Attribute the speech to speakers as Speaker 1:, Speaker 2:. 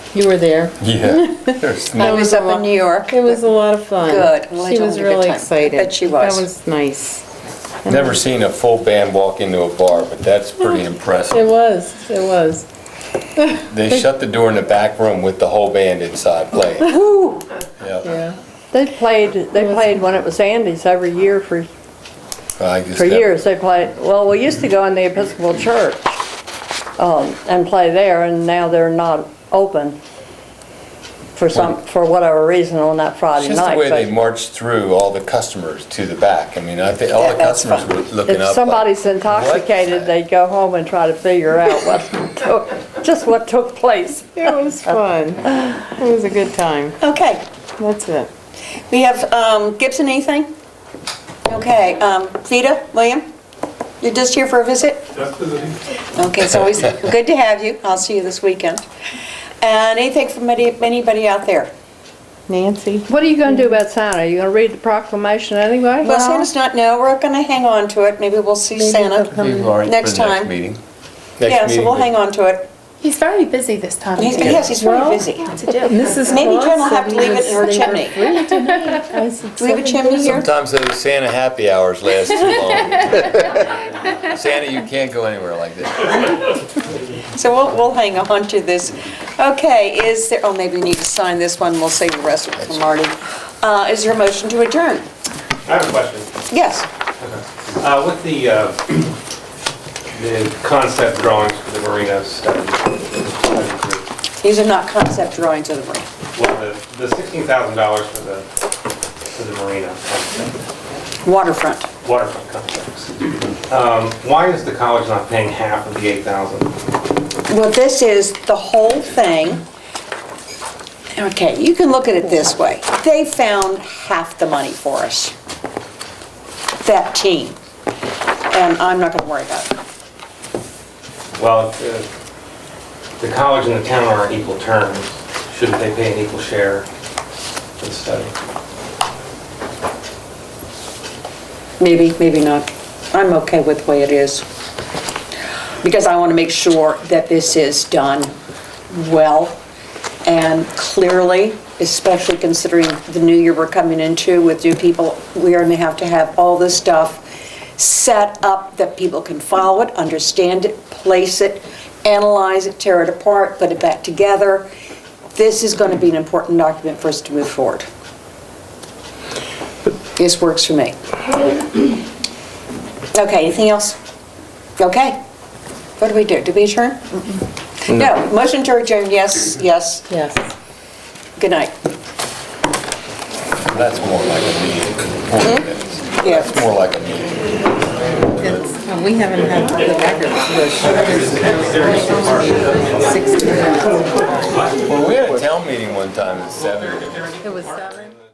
Speaker 1: You were there.
Speaker 2: Yeah. There's
Speaker 1: That
Speaker 2: no-
Speaker 1: It
Speaker 3: I was up in New York.
Speaker 1: It was a lot of fun.
Speaker 3: Good. Well, I
Speaker 1: She
Speaker 3: told
Speaker 1: was
Speaker 3: you a good
Speaker 1: really
Speaker 3: time. I
Speaker 1: excited.
Speaker 3: bet she was.
Speaker 1: That was nice.
Speaker 2: Never seen a full band walk into a bar, but that's pretty
Speaker 1: It
Speaker 2: impressive.
Speaker 1: was, it was.
Speaker 2: They shut the door in the back room with the whole band inside playing.
Speaker 4: Woo!
Speaker 2: Yeah.
Speaker 1: Yeah.
Speaker 4: They played, they played when it was Andy's every year for,
Speaker 2: I just
Speaker 4: for
Speaker 2: never-
Speaker 4: years. They played, well, we used to go in the Episcopal Church um, and play there, and now they're not open for some, for whatever reason on that
Speaker 2: It's
Speaker 4: Friday
Speaker 2: just the
Speaker 4: night.
Speaker 2: way they
Speaker 4: but
Speaker 2: marched through all the customers to the back. I mean, I think all the
Speaker 3: Yeah, that's
Speaker 2: customers were looking up.
Speaker 4: If
Speaker 2: like,
Speaker 4: somebody's
Speaker 2: "What?"
Speaker 4: intoxicated, they go home and try to figure out what took, just what took place.
Speaker 1: It was fun. It was a good time.
Speaker 3: Okay,
Speaker 1: That's it.
Speaker 3: we have um, Gibson, anything? Okay, um, Vita, William, you're just here for a visit?
Speaker 5: Just visiting.
Speaker 3: Okay, it's always good to have you. I'll see you this weekend. And anything from any- anybody out there?
Speaker 1: Nancy?
Speaker 4: What are you gonna do about Santa? Are you gonna read the proclamation anyway?
Speaker 3: Well, Santa's not, no, we're going to hang on to it. Maybe we'll see Santa.
Speaker 2: Leave Laurie for
Speaker 3: Next
Speaker 2: the next
Speaker 3: time.
Speaker 2: meeting.
Speaker 3: Yeah, so we'll hang on to it.
Speaker 6: He's very busy this time of
Speaker 3: He's-
Speaker 6: year.
Speaker 3: Yes, he's very
Speaker 1: Well-
Speaker 3: busy.
Speaker 6: It's a joke.
Speaker 1: Mrs.
Speaker 3: Maybe
Speaker 1: Claus
Speaker 3: Jen will have
Speaker 1: said
Speaker 3: to
Speaker 1: he
Speaker 3: leave it
Speaker 1: was-
Speaker 3: in
Speaker 1: they
Speaker 3: her
Speaker 1: were
Speaker 3: chimney.
Speaker 1: free tonight. I said
Speaker 3: Do we have a
Speaker 1: seven
Speaker 3: chimney here?
Speaker 2: Sometimes those Santa happy hours last too long. Santa, you can't go anywhere like this.
Speaker 3: So we'll, we'll hang on to this. Okay, is there, oh, maybe we need to sign this one, we'll save the rest of it for Marty. Uh, Is there a motion to adjourn?
Speaker 5: I have a question.
Speaker 3: Yes.
Speaker 5: Uh, With the, uh, the concept drawings for the marina study,
Speaker 3: These are not concept drawings of the room.
Speaker 5: well, the the $16,000 for the, for the marina concept,
Speaker 3: Waterfront.
Speaker 5: waterfront complex, um, why is the college not paying half of the 8,000?
Speaker 3: Well, this is the whole thing. Okay, you can look at it this way. They found half the money for us. That team. And I'm not going to worry about it.
Speaker 5: Well, if the, the college and the town are on equal terms, shouldn't they pay an equal share for the study?
Speaker 3: Maybe, maybe not. I'm okay with the way it is. Because I want to make sure that this is done well and clearly, especially considering the new year we're coming into with new people. We are going to have to have all this stuff set up that people can follow it, understand it, place it, analyze it, tear it apart, put it back together. This is going to be an important document for us to move forward. This works for me. Okay, anything else? Okay. What do we do? Do we adjourn? No, motion to adjourn, yes, yes.
Speaker 1: Yes.
Speaker 3: Good night.
Speaker 2: That's more like a meeting. Forty
Speaker 3: Mm-hmm.
Speaker 2: minutes.
Speaker 3: Yeah.
Speaker 2: That's more like a meeting.
Speaker 1: We haven't had the record.
Speaker 2: Well, we had a town meeting one time at seven.
Speaker 1: It was seven.